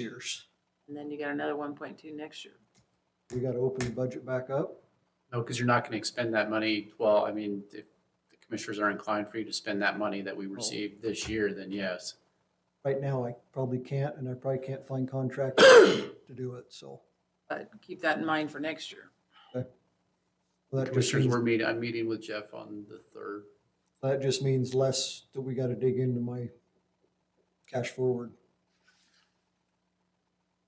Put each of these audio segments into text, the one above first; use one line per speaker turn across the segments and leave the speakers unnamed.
years.
And then you got another one point two next year.
We gotta open the budget back up.
No, because you're not going to expend that money, well, I mean, if the commissioners are inclined for you to spend that money that we received this year, then yes.
Right now, I probably can't, and I probably can't find contractors to do it, so.
But keep that in mind for next year.
Well, That just
Commissioners,
means,
we're meeting, I'm meeting with Jeff on the third.
that just means less that we gotta dig into my cash forward.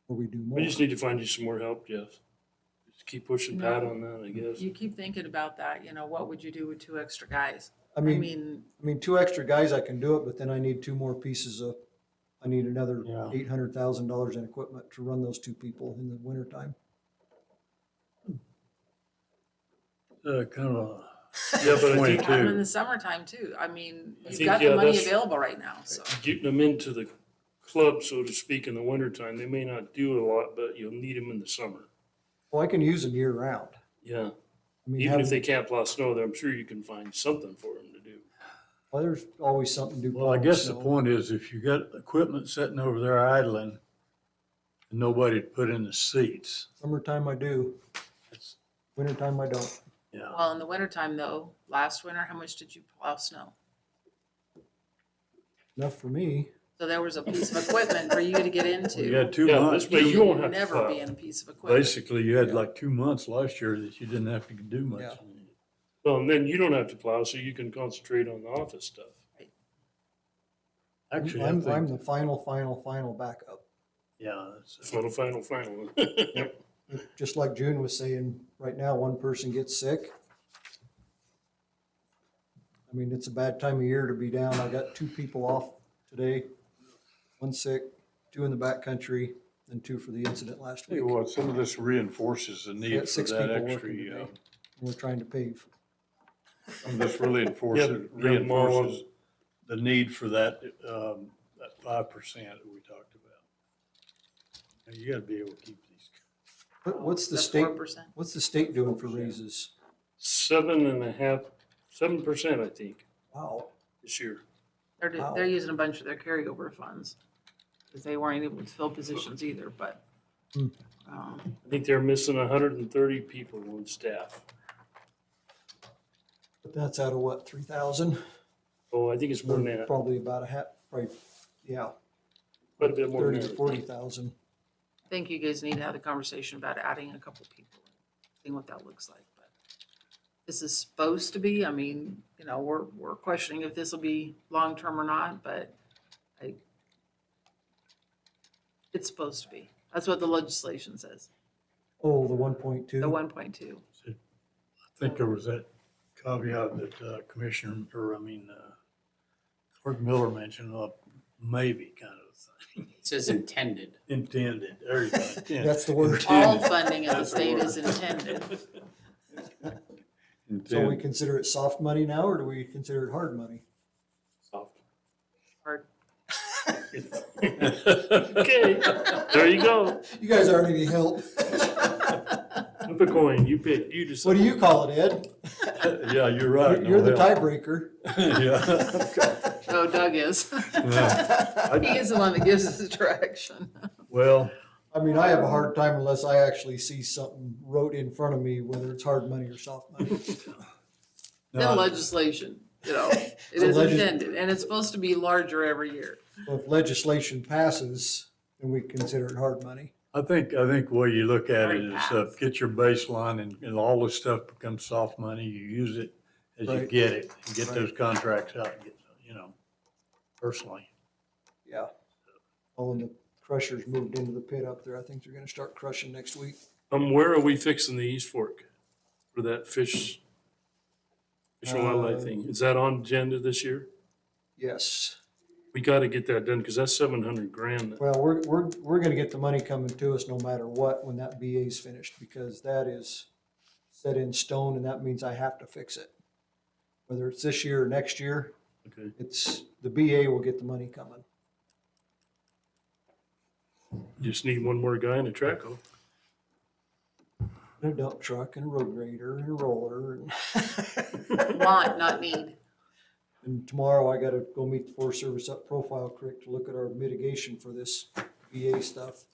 Or we do more.
We just need to find you some more help, Jeff. Just keep pushing Pat
No.
on that, I guess.
You keep thinking about that, you know, what would you do with two extra guys?
I
I
mean,
mean,
I mean, two extra guys, I can do it, but then I need two more pieces of, I need another
Yeah.
eight hundred thousand dollars in equipment to run those two people in the wintertime.
Uh, kind of. Yeah, but I
you
think
have them in
too,
the summertime too. I mean,
I
you've
think,
got
yeah,
the money
that's-
available right now, so.
getting them into the club, so to speak, in the wintertime, they may not do a lot, but you'll need them in the summer.
Well, I can use them year round.
Yeah,
I mean,
even if
have,
they can't plow snow, there, I'm sure you can find something for them to do.
well, there's always something to do.
Well, I guess the
so-
point is if you got equipment sitting over there idling and nobody to put in the seats,
Summertime I do,
it's,
wintertime I don't.
yeah.
Well, in the wintertime though, last winter, how much did you plow snow?
Enough for me.
So there was a piece of equipment for you to get
You
into.
had two
Yeah,
months,
this way you won't
You'd
have to
Never be
plow.
in a piece of equipment.
basically you had like two months last year that you didn't have to do
Yeah.
much.
Well, and then you don't have to plow, so you can concentrate on the office stuff.
Actually, I
I'm, I'm
think,
the final, final, final backup.
yeah, that's-
Final, final, final.
Just like June was saying, right now, one person gets sick. I mean, it's a bad time of year to be down. I got two people off today. One sick, two in the backcountry, and two for the incident last
tell
week.
you what, some of this reinforces the
We got
need for
six
that
people
extra,
working today.
uh,
We're trying to pave.
some of this really enforces,
Yeah, yeah, more on-
reinforces the need for that, um, that five percent that we talked about. Now, You gotta be able to keep these.
What, what's the state,
Four percent.
what's the state doing for raises?
Seven and a half, seven percent, I think,
Wow.
this year.
They're, d-
Wow.
they're using a bunch of their carryover funds, because they weren't able to fill positions either, but.
Hmm.
um,
I think they're missing hundred and thirty people on staff.
But that's out of what, three thousand?
Oh, I think it's more than that,
Probably about a half, right, yeah,
quite a bit more
thirty
than
to forty thousand.
I think you guys need to have a conversation about adding a couple people, seeing what that looks like, but. This is supposed to be, I mean, you know, we're, we're questioning if this will be long-term or not, but I. It's supposed to be. That's what the legislation says,
Oh, the one point two?
the one point two.
I think there was that caveat that uh, Commissioner, or I mean, uh, Clerk Miller mentioned, uh, maybe kind of
It says intended.
intended, there you go.
That's the word. Oh,
All
Intended.
funding of the
That's the
state is
word.
intended.
So we
Intended.
consider it soft money now, or do we consider it hard money?
Or
Okay, there you go.
You guys aren't any help.
Flip a coin, you pick, you decide.
What do you call it, Ed?
Yeah, you're right.
You're the
no help.
tiebreaker.
Yeah.
Oh, Doug is.
Yeah.
He is the one that gives us the direction.
Well,
I mean, I have a hard time unless I actually see something wrote in front of me, whether it's hard money or soft money.
The
no,
legislation, you know, it
The
is
legis-
intended, and it's supposed to be larger every year.
So If legislation passes, then we consider it hard money.
I think, I think the way you look at it
Very
is
fast.
uh, get your baseline and, and all this stuff becomes soft money. You use it as you
Right.
get it, and get
Right.
those contracts out, and get, you know, personally.
Yeah. Oh, and the crushers moved into the pit up there. I think they're gonna start crushing next week.
Um, where are we fixing the East Fork for that fish? Fish and
Uh,
wildlife thing, is that on agenda this year?
Yes.
We gotta get that done, cause that's seven hundred grand.
Well, we're, we're, we're gonna get the money coming to us no matter what when that BA's finished, because that is set in stone and that means I have to fix it. Whether it's this year or next year,
Okay,
it's, the BA will get the money coming.
just need one more guy and a track hoe.
And a dump truck and a road grader and a roller. and-
Want, not need.
And tomorrow I gotta go meet the Forest Service up Profile Creek to look at our mitigation for this BA stuff.